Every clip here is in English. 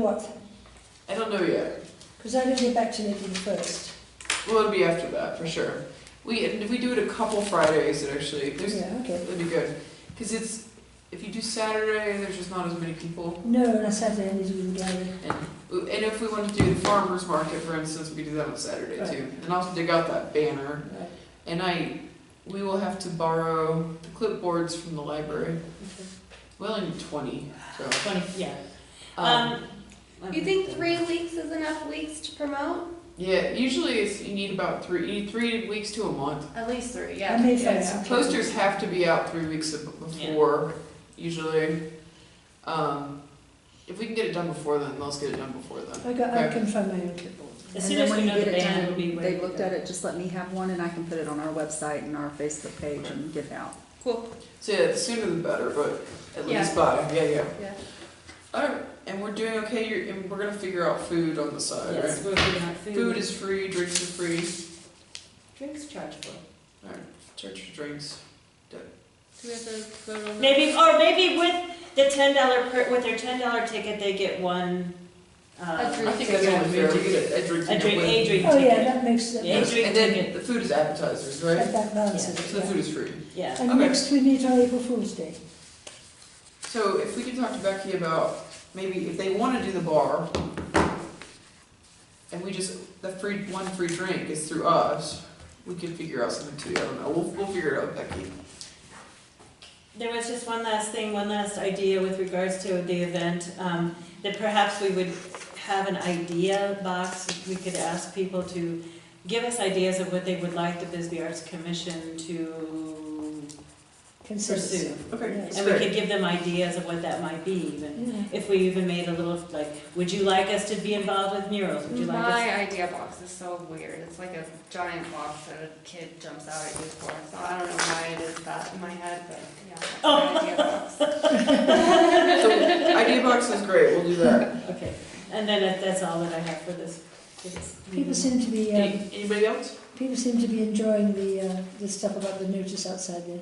What? I don't know yet. Because I didn't get back to Nikki first. Well, it'll be after that for sure. We and if we do it a couple Fridays, it actually there's Yeah, okay. it'll be good because it's if you do Saturday, there's just not as many people. No, and I sat there and it was all gallery. And, and if we want to do the farmers market, for instance, we could do that on Saturday too. And also dig out that banner. Right. And I, we will have to borrow the clipboards from the library. We only need twenty, so. Twenty, yeah. Um, You think three weeks is enough weeks to promote? yeah, usually it's, you need about three, you need three weeks to a month. At least three, I may find Yes, out. posters have to be out three weeks ab- before, usually. Um, if we can get it done before then, let's get it done before then. I got, I Okay. can find my own clipboard. As And soon then as when we you know get the it band, done, it'll be ready They've to looked go. at it, just let me have one and I can put it on our website and our Facebook page and get it out. Cool. So yeah, the sooner the better, but at Yeah. least by, yeah, yeah. Yeah. Alright, and we're doing okay, you're, and we're gonna figure out food on the side, right? Yes, we're figuring out food. Food is free, drinks are free, Drinks chargeable. church drinks. Do we have to vote on that? Maybe, or maybe with the ten dollar, per with their ten dollar ticket, they get one, A uh, drink. I think that's only fair, we get a, a drink. a and drink, a win. drink Oh, yeah, ticket. that makes, that Yeah. makes, And then the food is appetizers, right? that that balances So the it, food yeah. is free. Yeah, And Okay. next we meet on April Fool's Day. So if we could talk to Becky about maybe if they wanna do the bar, and we just, the free, one free drink is through us, we could figure out something too, I don't know, we'll, we'll figure it out, Becky. there was just one last thing, one last idea with regards to the event, um, that perhaps we would have an idea box, we could ask people to give us ideas of what they would like the Bisbee Arts Commission to Consensus. pursue. Okay, Yeah. that's And we great. could give them ideas of what that might be even. Yeah. If we even made a little, like, would you like us to be involved with murals? Would you like us? My idea box is so weird. It's like a giant box that a kid jumps out at you for. So I don't know why it is that in my head, but yeah. that's Oh. my idea So box. idea box is great, we'll do that. Okay, and then if that's all that I have for this. this People meeting. seem to be, um, Any- Anybody else? people seem to be enjoying the, uh, the stuff about the notice outside the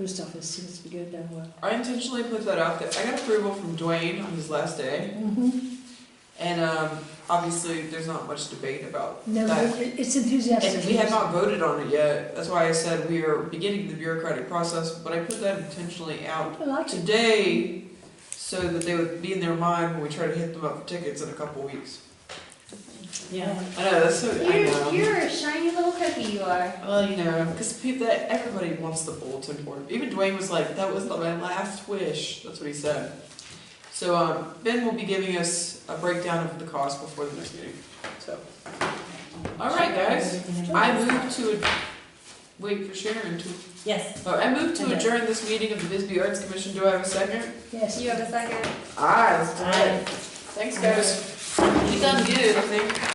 post office, seems to be going down well. I intentionally put that out there. I got approval from Dwayne on his last day, Mhm. and um, obviously there's not much debate about No, that. it- it's enthusiastic. And we have not voted on it yet. That's why I said we are beginning the bureaucratic process, but I put that intentionally out I like it. today so that they would be in their mind when we try to hit them up for tickets in a couple weeks. Yeah, I know, that's so, I know. You're, you're a shiny little cookie, you are. Well, you know, because people, that everybody wants the bulletin board. Even Dwayne was like, "That was my last wish." That's what he said. So um, Ben will be giving us a breakdown of the cost before the next meeting. So, all right, guys. I move to ad- wait for Sharon to. Yes, Oh, I move to Okay. adjourn this meeting of the Bisbee Arts Commission. Do I have a second? Yes. You have a second? Aye, let's do Aye. it. Thanks, guys. You done good, I think.